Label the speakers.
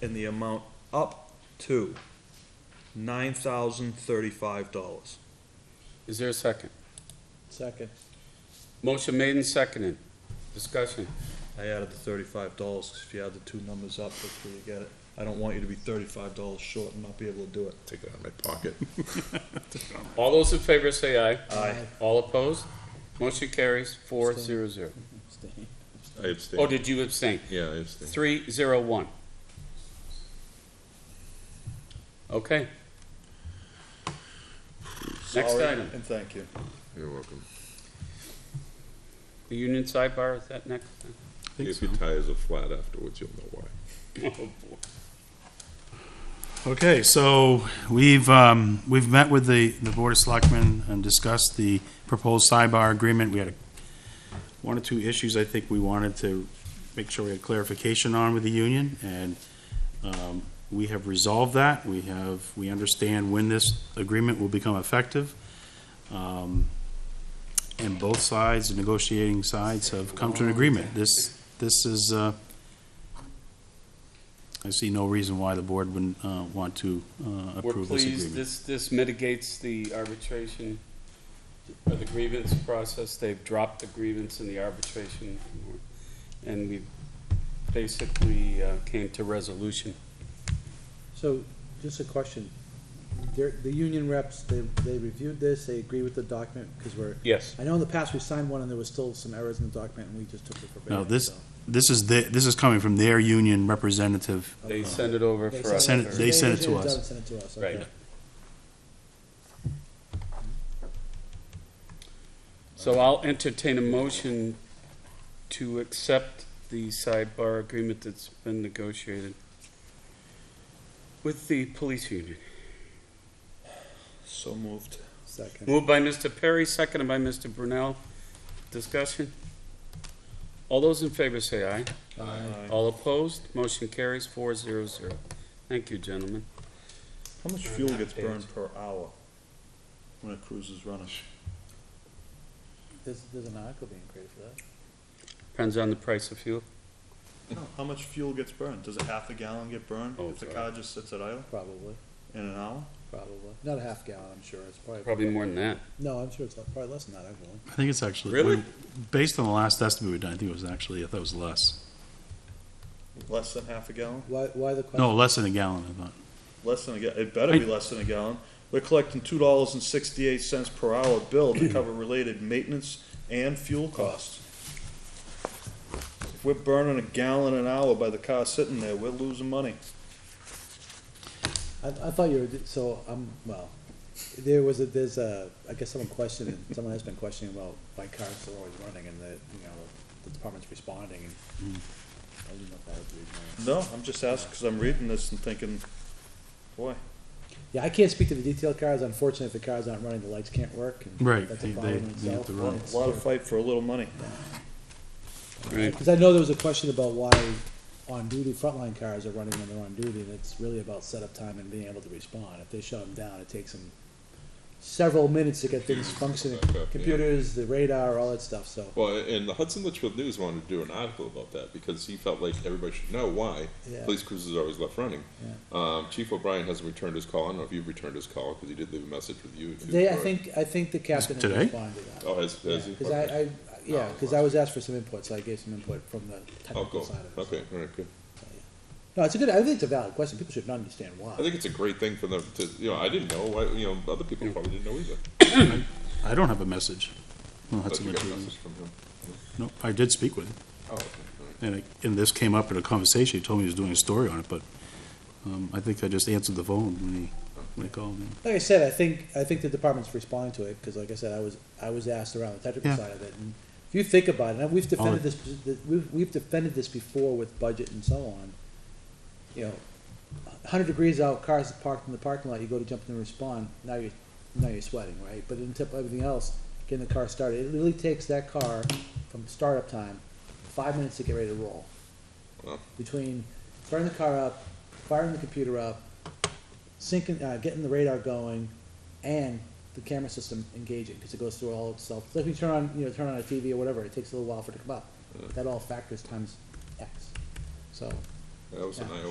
Speaker 1: in the amount up to nine thousand thirty-five dollars.
Speaker 2: Is there a second?
Speaker 3: Second.
Speaker 2: Motion made and seconded. Discussion.
Speaker 1: I added the thirty-five dollars, if you add the two numbers up, that's where you get it. I don't want you to be thirty-five dollars short and not be able to do it.
Speaker 4: Take it out of my pocket.
Speaker 2: All those in favor say aye.
Speaker 1: Aye.
Speaker 2: All opposed? Motion carries four zero zero.
Speaker 4: I abstain.
Speaker 2: Oh, did you abstain?
Speaker 4: Yeah, I abstain.
Speaker 2: Three zero one. Okay. Next
Speaker 1: Sorry,
Speaker 2: item,
Speaker 1: And thank you.
Speaker 4: You're welcome.
Speaker 2: the union sidebar, is that next?
Speaker 4: If your tires are flat afterwards, you'll know why.
Speaker 2: Oh, boy.
Speaker 5: Okay, so we've, um, we've met with the, the Board of Selectmen and discussed the proposed sidebar agreement. We had a- one or two issues I think we wanted to make sure we had clarification on with the union, and um, we have resolved that. We have, we understand when this agreement will become effective. Um, And both sides, the negotiating sides, have come to an agreement. This, this is, uh, I see no reason why the board wouldn't uh, want to uh,
Speaker 2: We're
Speaker 5: approve this
Speaker 2: pleased,
Speaker 5: agreement.
Speaker 2: this, this mitigates the arbitration, or the grievance process, they've dropped the grievance in the arbitration, and we basically uh, came to resolution.
Speaker 3: So, just a question. There, the union reps, they, they reviewed this, they agree with the document, because we're,
Speaker 2: Yes.
Speaker 3: I know in the past we signed one and there was still some errors in the document and we just took it for
Speaker 5: No,
Speaker 3: granted.
Speaker 5: this,
Speaker 3: so.
Speaker 5: this is, the- this is coming from their union representative.
Speaker 2: They sent it over for us.
Speaker 5: Send it- they sent it to
Speaker 3: originally
Speaker 5: us.
Speaker 3: done send it to us,
Speaker 2: Right.
Speaker 3: okay.
Speaker 2: So I'll entertain a motion to accept the sidebar agreement that's been negotiated with the police union.
Speaker 1: So moved.
Speaker 3: Second.
Speaker 2: Moved by Mr. Perry, seconded by Mr. Brunel. Discussion? All those in favor say aye.
Speaker 1: Aye.
Speaker 2: All opposed, motion carries four zero zero. Thank you, gentlemen.
Speaker 1: How much fuel gets burned per hour when a cruise is running?
Speaker 3: There's, there's an article being created for that.
Speaker 2: Depends on the price of fuel.
Speaker 1: How much fuel gets burned? Does a half a gallon get burned
Speaker 2: Oh,
Speaker 1: if the
Speaker 2: sorry.
Speaker 1: car just sits at idle
Speaker 3: Probably,
Speaker 1: in an hour?
Speaker 3: probably. Not a half gallon, I'm sure. It's probably,
Speaker 2: Probably more than that.
Speaker 3: no, I'm sure it's probably less than that, I believe.
Speaker 5: I think it's actually.
Speaker 2: Really?
Speaker 5: Based on the last estimate we done, I think it was actually, I thought it was less.
Speaker 1: Less than half a gallon?
Speaker 3: Why, why the question?
Speaker 5: No, less than a gallon, I thought.
Speaker 1: Less than a gallon. It better be less than a gallon. We're collecting two dollars and sixty-eight cents per hour bill to cover related maintenance and fuel costs. If we're burning a gallon an hour by the car sitting there, we're losing money.
Speaker 3: I, I thought you were, so, um, well, there was a, there's a, I guess someone questioned, it. someone has been questioning about why cars are always running and the, you know, the department's responding and. I didn't know if that was the reason why.
Speaker 1: No, I'm just asking because I'm reading this and thinking, boy,
Speaker 3: Yeah, I can't speak to the detailed cars, unfortunately, if the cars aren't running, the lights can't work and.
Speaker 5: Right,
Speaker 3: That's
Speaker 5: they-
Speaker 3: a
Speaker 5: they-
Speaker 3: problem in
Speaker 5: they have
Speaker 3: itself.
Speaker 5: to
Speaker 1: a lot
Speaker 5: run.
Speaker 3: It's-
Speaker 1: a lot of fight for a little money.
Speaker 2: Right.
Speaker 3: Cause I know there was a question about why on-duty frontline cars are running when they're on duty, and it's really about setup time and being able to respond. If they shut them down, it takes them several minutes to get things functioning,
Speaker 4: Back up, yeah.
Speaker 3: computers, the radar, all that stuff, so.
Speaker 4: Well, and the Hudson Litchfield News wanted to do an article about that because he felt like everybody should know why
Speaker 3: Yeah.
Speaker 4: police cruisers are always left running.
Speaker 3: Yeah.
Speaker 4: Um, Chief O'Brien hasn't returned his call. I don't know if you've returned his call because he did leave a message with you. if you-
Speaker 3: They, I think, I think the captain had
Speaker 5: Today?
Speaker 3: responded to that.
Speaker 4: Oh, has, has he?
Speaker 3: Cause I,
Speaker 4: Okay.
Speaker 3: I, yeah, cause I was asked for some input, so I gave some input from the
Speaker 4: Oh,
Speaker 3: technical
Speaker 4: cool.
Speaker 3: side of it.
Speaker 4: Okay, all right, good.
Speaker 3: No, it's a good, I think it's a valid question, people should understand why.
Speaker 4: I think it's a great thing for them to, you know, I didn't know, why, you know, other people probably didn't know either.
Speaker 5: I don't have a message. Well,
Speaker 4: But
Speaker 5: that's a
Speaker 4: you got a
Speaker 5: good-
Speaker 4: message from him.
Speaker 5: No, I did speak with him,
Speaker 4: Oh, okay, all right.
Speaker 5: and, it- and this came up in a conversation. He told me he was doing a story on it, but um, I think I just answered the phone when he, when he called me.
Speaker 3: Like I said, I think, I think the department's responding to it, because like I said, I was, I was asked around the technical
Speaker 5: Yeah.
Speaker 3: side of it, and if you think about it, and we've defended
Speaker 5: Oh.
Speaker 3: this, we've, we've defended this before with budget and so on. You know, hundred degrees out, cars parked in the parking lot, you go to jump in and respond, now you're, now you're sweating, right? But on top of everything else, getting the car started, it really takes that car from startup time, five minutes to get ready to roll.
Speaker 4: Wow.
Speaker 3: Between starting the car up, firing the computer up, syncing, uh, getting the radar going, and the camera system engaging, because it goes through all itself. It's like when you turn on, you know, turn on a TV or whatever, it takes a little while for it to come up. That all factors times X, so.
Speaker 4: That was an
Speaker 3: Yeah.
Speaker 4: eye